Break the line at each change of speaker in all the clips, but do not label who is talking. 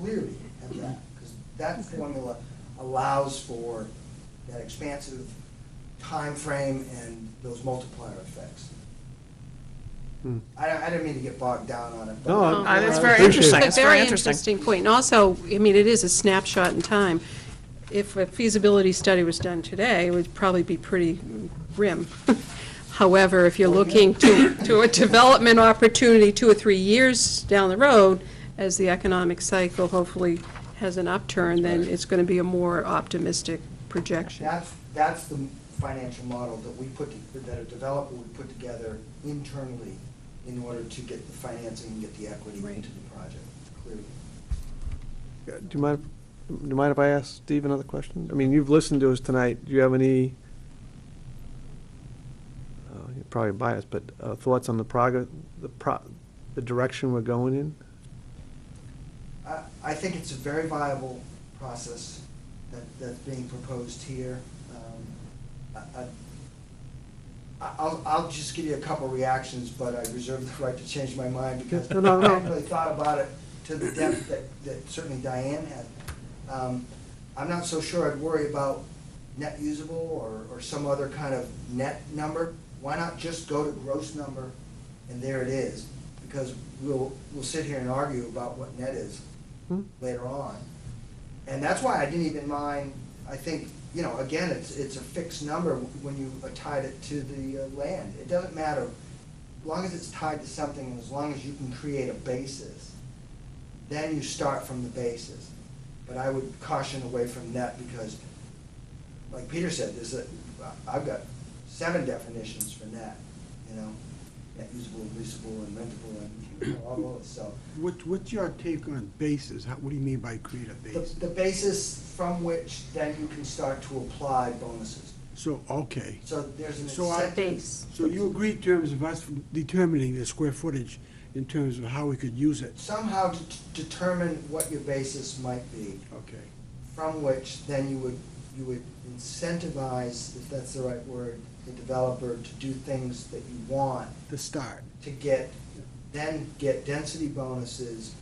leery of that, because that formula allows for that expansive time frame and those multiplier effects.
Hmm.
I, I didn't mean to get bogged down on it, but.
No,
Uh, That's
I
very
appreciate
interesting,
it.
that's very interesting.
interesting point. And also, I mean, it is a snapshot in time. If a feasibility study was done today, it would probably be pretty grim. However, if you're looking to, to a development opportunity two or three years down the road, as the economic cycle hopefully has an upturn, then it's going to be a more optimistic projection.
That's, that's the financial model that we put, to- that a developer would put together internally in order to get the financing and get the equity into the project, clearly.
Uh, Do you mind, do you mind if I ask Steve another question? I mean, you've listened to us tonight. Do you have any, uh, you're probably biased, but uh, thoughts on the prog, the pro, the direction we're going in?
I, I think it's a very viable process that, that's being proposed here. Um, I- I- I- I'll, I'll just give you a couple reactions, but I reserve the right to change my mind because
No, no, no.
I haven't really thought about it to the depth that, that certainly Diane had. Um, I'm not so sure I'd worry about net usable or, or some other kind of net number. Why not just go to gross number and there it is? Because we'll, we'll sit here and argue about what net is
Hmm?
later on. And that's why I didn't even mind, I think, you know, again, it's, it's a fixed number when you tied it to the uh, land. It doesn't matter, as long as it's tied to something, and as long as you can create a basis, then you start from the basis. But I would caution away from that because, like Peter said, there's a, I've got seven definitions for net, you know? Net usable, leasable, and rentable, and all those, so.
What, what's your take on bases? How, what do you mean by create a
The,
base?
the basis from which then you can start to apply bonuses.
So, okay.
So there's an
So I-
incentive.
So you agree in terms of us determining the square footage in terms of how we could use it?
Somehow to determine what your basis might be,
Okay.
from which then you would, you would incentivize, if that's the right word, the developer to do things that you want
The start.
to get, then get density bonuses,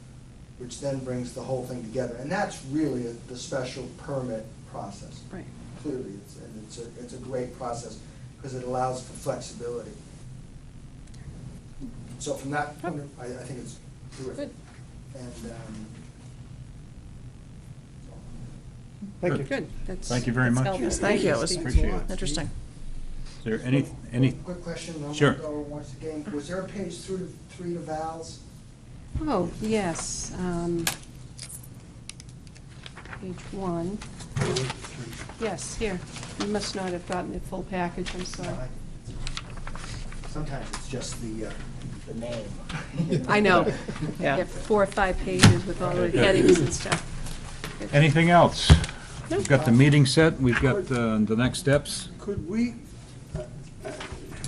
which then brings the whole thing together. And that's really the special permit process.
Right.
clearly, it's, and it's a, it's a great process, because it allows for flexibility. So from that, point of- I, I think it's terrific.
Good.
And, um,
Thank you.
Good. That's-
Thank you very
That's
much.
helpful.
Yes,
Thank you, it was
Steve.
Appreciate it.
interesting.
Is there any,
Quick-
any,
Quick question, I'm
Sure.
gonna go once again, was there a page through, to- three to Val's?
Oh, yes. um, Page one. Yes, here. You must not have gotten the full package, I'm sorry.
Sometimes it's just the, uh, the name.
I know.
Yeah.
Yeah, four or five pages with all the
Okay.
headings and stuff.
anything else? We've got the meeting set, we've got uh, the next steps.
Could we uh, uh,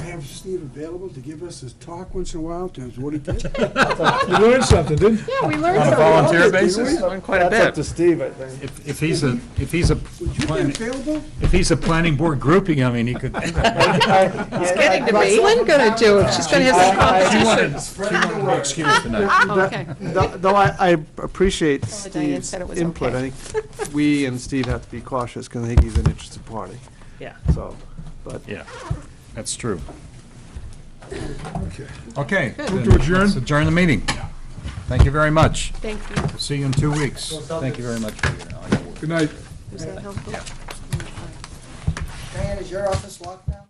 have Steve available to give us his talk once in a while in terms of what he did?
You learned something, didn't you?
Yeah, we learned
On a
something.
volunteer basis?
Learned quite a
That's up
bit.
to Steve, I think.
If if he's a, if he's a,
Would you be
plan-
available?
if he's a planning board grouping, I mean, he could.
It's
Getting to me. What's Lynn gonna do if she's gonna have some
She
competition?
wanted, she wanted no excuse tonight.
Oh, Okay.
Though though Uh, I, I appreciate
Although Diane
Steve's
said it was
input, I
okay.
think we and Steve have to be cautious, because I think he's an interested party,
Yeah.
so, but.
Yeah, that's true.
Okay.
Okay.
Move to
then
adjourn.
let's Adjourn the meeting. Thank you very much.
Thank you.
See you in two weeks. Thank you very much for your, all your work.
Good night.
Was that helpful?
Diane, is your office locked now?